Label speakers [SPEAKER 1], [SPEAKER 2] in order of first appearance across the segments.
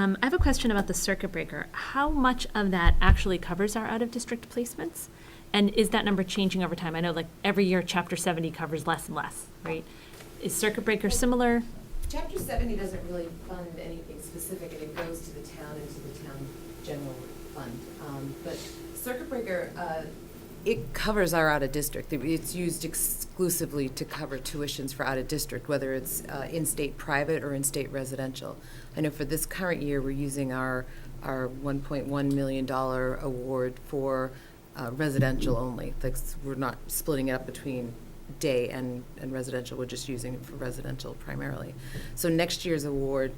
[SPEAKER 1] Um, I have a question about the circuit breaker. How much of that actually covers our out-of-district placements? And is that number changing over time? I know like every year, Chapter 70 covers less and less, right? Is circuit breaker similar?
[SPEAKER 2] Chapter seventy doesn't really fund anything specific, and it goes to the town and to the town general fund. Um, But circuit breaker, uh, it covers our out-of-district. It's used exclusively to cover tuitions for out-of-district, whether it's uh, in-state private or in-state residential. I know for this current year, we're using our, our one point one million dollar award for uh, residential only. Like, s- we're not splitting it up between day and, and residential, we're just using it for residential primarily. So next year's award,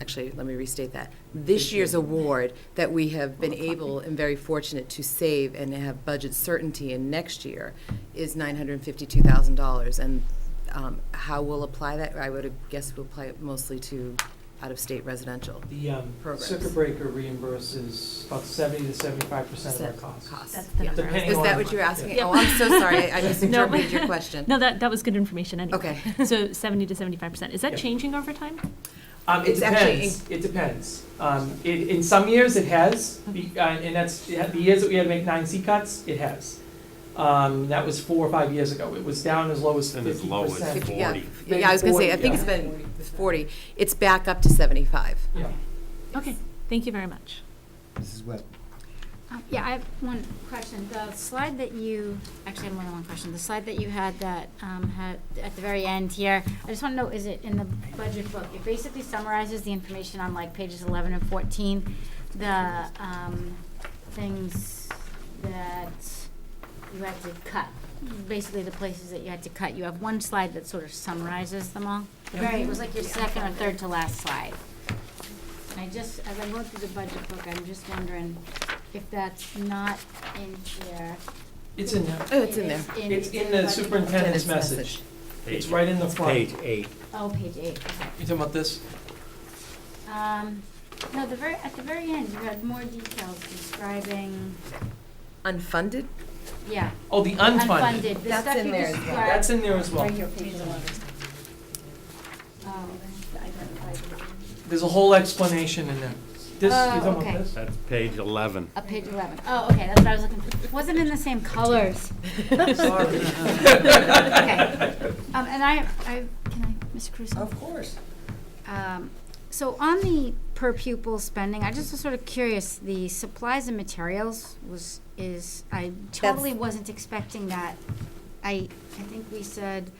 [SPEAKER 2] actually, let me restate that. This year's award that we have been able and very fortunate to save and have budget certainty in next year is nine hundred and fifty-two thousand dollars. And um, how we'll apply that, I would guess we'll apply it mostly to out-of-state residential.
[SPEAKER 3] The um,
[SPEAKER 2] Programs.
[SPEAKER 3] circuit breaker reimburses about 70 to 75 percent of our costs.
[SPEAKER 2] Costs.
[SPEAKER 1] That's the
[SPEAKER 2] Yeah.
[SPEAKER 1] number. I was
[SPEAKER 3] Depending
[SPEAKER 1] looking
[SPEAKER 2] Is
[SPEAKER 3] on-
[SPEAKER 2] that
[SPEAKER 1] for.
[SPEAKER 2] what you're asking?
[SPEAKER 1] Yeah.
[SPEAKER 2] Oh, I'm so sorry, I I
[SPEAKER 3] No.
[SPEAKER 2] misinterpreted your question.
[SPEAKER 1] No, that, that was good information anyway.
[SPEAKER 2] Okay.
[SPEAKER 1] So 70 to 75%. Is that
[SPEAKER 3] Yeah.
[SPEAKER 1] changing over time?
[SPEAKER 3] Um, it
[SPEAKER 2] It's actually
[SPEAKER 3] depends, it depends. Um, it, in some years it has,
[SPEAKER 2] Uh-huh.
[SPEAKER 3] be- uh, and that's, yeah, the years that we had to make nine C cuts, it has. Um, that was four or five years ago. It was down as low as
[SPEAKER 4] And as
[SPEAKER 3] fifty
[SPEAKER 4] low as
[SPEAKER 3] percent.
[SPEAKER 2] Yeah.
[SPEAKER 4] 40.
[SPEAKER 2] Yeah, I was gonna say, I think it's been forty, it's back up to seventy-five.
[SPEAKER 3] Yeah.
[SPEAKER 1] Okay, thank you very much.
[SPEAKER 5] Mrs. Webb.
[SPEAKER 6] Um, Yeah, I have one question. The slide that you, actually, I have more than one question. The slide that you had that um, had, at the very end here, I just want to know, is it in the budget book? It basically summarizes the information on like pages 11 and 14, the um, things that you had to cut, basically the places that you had to cut. You have one slide that sort of summarizes them all. Very, it was like your second or third to last slide. And I just, as I'm going through the budget book, I'm just wondering if that's not in here.
[SPEAKER 3] It's in there.
[SPEAKER 2] Oh, it's in
[SPEAKER 6] It
[SPEAKER 2] there.
[SPEAKER 3] It's
[SPEAKER 6] is
[SPEAKER 3] in
[SPEAKER 6] the
[SPEAKER 3] the
[SPEAKER 6] budget book.
[SPEAKER 3] superintendent's
[SPEAKER 2] Superintendent's message.
[SPEAKER 3] message. It's right in the front.
[SPEAKER 4] Page eight.
[SPEAKER 6] Oh, page eight, okay.
[SPEAKER 3] You talking about this?
[SPEAKER 6] Um, no, the very, at the very end, you had more details describing,
[SPEAKER 2] Unfunded?
[SPEAKER 6] yeah,
[SPEAKER 3] Oh, the unfunded.
[SPEAKER 6] unfunded, the
[SPEAKER 2] That's
[SPEAKER 6] stuff
[SPEAKER 2] in
[SPEAKER 6] you
[SPEAKER 2] there as well. Mm-hmm.
[SPEAKER 6] described.
[SPEAKER 3] That's in there as well.
[SPEAKER 6] Right here, page eleven. Oh, okay.
[SPEAKER 3] There's a whole explanation in there. This, you
[SPEAKER 6] Oh,
[SPEAKER 3] talking about
[SPEAKER 6] okay.
[SPEAKER 3] this?
[SPEAKER 4] That's page 11.
[SPEAKER 6] Uh, page eleven. Oh, okay, that's what I was looking for. Wasn't in the same colors.
[SPEAKER 3] Sorry.
[SPEAKER 6] Okay. Um, and I, I, can I, Mr. Caruso?
[SPEAKER 5] Of course.
[SPEAKER 2] Oh.
[SPEAKER 6] Um, So on the per pupil spending, I just was sort of curious, the supplies and materials was, is, I totally wasn't expecting that. I, I think we said,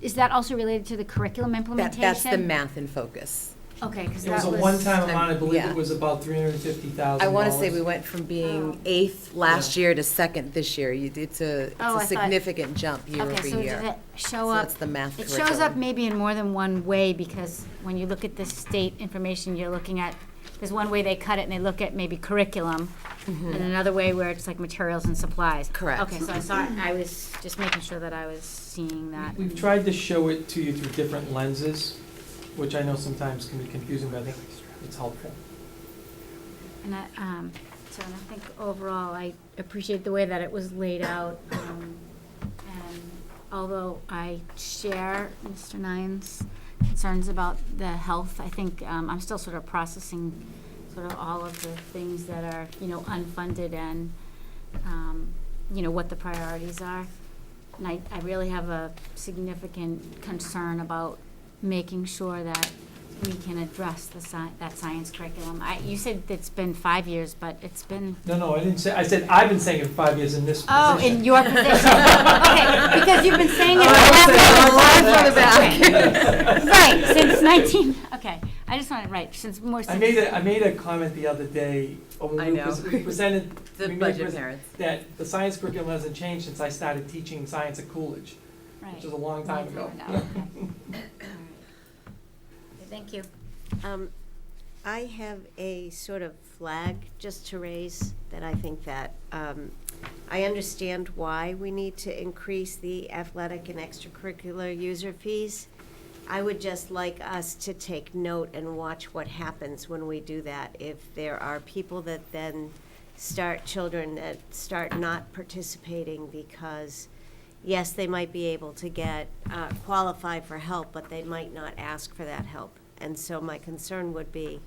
[SPEAKER 6] is that also related to the curriculum
[SPEAKER 2] That,
[SPEAKER 6] implementation?
[SPEAKER 2] that's the math in focus.
[SPEAKER 6] Okay, because
[SPEAKER 3] It was
[SPEAKER 6] that
[SPEAKER 3] a
[SPEAKER 6] was.
[SPEAKER 3] one-time amount, I believe
[SPEAKER 2] Yeah.
[SPEAKER 3] it was about three hundred and fifty thousand
[SPEAKER 2] I want
[SPEAKER 3] dollars.
[SPEAKER 2] to say we went from being
[SPEAKER 6] Oh.
[SPEAKER 2] eighth last year to second this year. You- It's a, it's
[SPEAKER 6] Oh, I
[SPEAKER 2] a
[SPEAKER 6] thought-
[SPEAKER 2] significant jump year over
[SPEAKER 6] Okay, so did
[SPEAKER 2] year.
[SPEAKER 6] it show
[SPEAKER 2] So
[SPEAKER 6] up?
[SPEAKER 2] that's the math
[SPEAKER 6] It shows up
[SPEAKER 2] curriculum.
[SPEAKER 6] maybe in more than one way, because when you look at the state information, you're looking at, there's one way they cut it and they look at maybe curriculum,
[SPEAKER 2] Mm-hmm.
[SPEAKER 6] and another way where it's like materials and supplies.
[SPEAKER 2] Correct.
[SPEAKER 6] Okay, so I saw, it. I was just making sure that I was seeing that.
[SPEAKER 3] We've tried to show it to you through different lenses, which I know sometimes can be confusing, but I think it's helpful.
[SPEAKER 6] And I, um, so and I think overall, I appreciate the way that it was laid out. um, And although I share Mr. Nine's concerns about the health, I think, um, I'm still sort of processing sort of all of the things that are, you know, unfunded and, um, you know, what the priorities are. And I, I really have a significant concern about making sure that we can address the sci- that science curriculum. I, you said it's been five years, but it's been,
[SPEAKER 3] No, no, I didn't say, I said, I've been saying it for five years in this
[SPEAKER 6] oh,
[SPEAKER 3] position.
[SPEAKER 6] in your position. Okay, because you've been saying it for
[SPEAKER 2] Oh, I
[SPEAKER 6] five
[SPEAKER 2] was saying,
[SPEAKER 6] years.
[SPEAKER 2] the
[SPEAKER 6] Okay. Right, since nineteen, okay, I just wanted, right, since more,
[SPEAKER 3] I made
[SPEAKER 6] since,
[SPEAKER 3] a, I made a comment the other day,
[SPEAKER 2] I
[SPEAKER 3] uh, when we
[SPEAKER 2] know.
[SPEAKER 3] pres- we presented,
[SPEAKER 2] The
[SPEAKER 3] We made
[SPEAKER 2] budget
[SPEAKER 3] pres-
[SPEAKER 2] merits.
[SPEAKER 3] that the science curriculum hasn't changed since I started teaching science at Coolidge,
[SPEAKER 6] right.
[SPEAKER 3] which was a long time ago.
[SPEAKER 6] Okay. All right. Thank you.
[SPEAKER 7] Um, I have a sort of flag just to raise that I think that, um, I understand why we need to increase the athletic and extracurricular user fees. I would just like us to take note and watch what happens when we do that. If there are people that then start, children that start not participating because, yes, they might be able to get, uh, qualify for help, but they might not ask for that help. And so my concern would be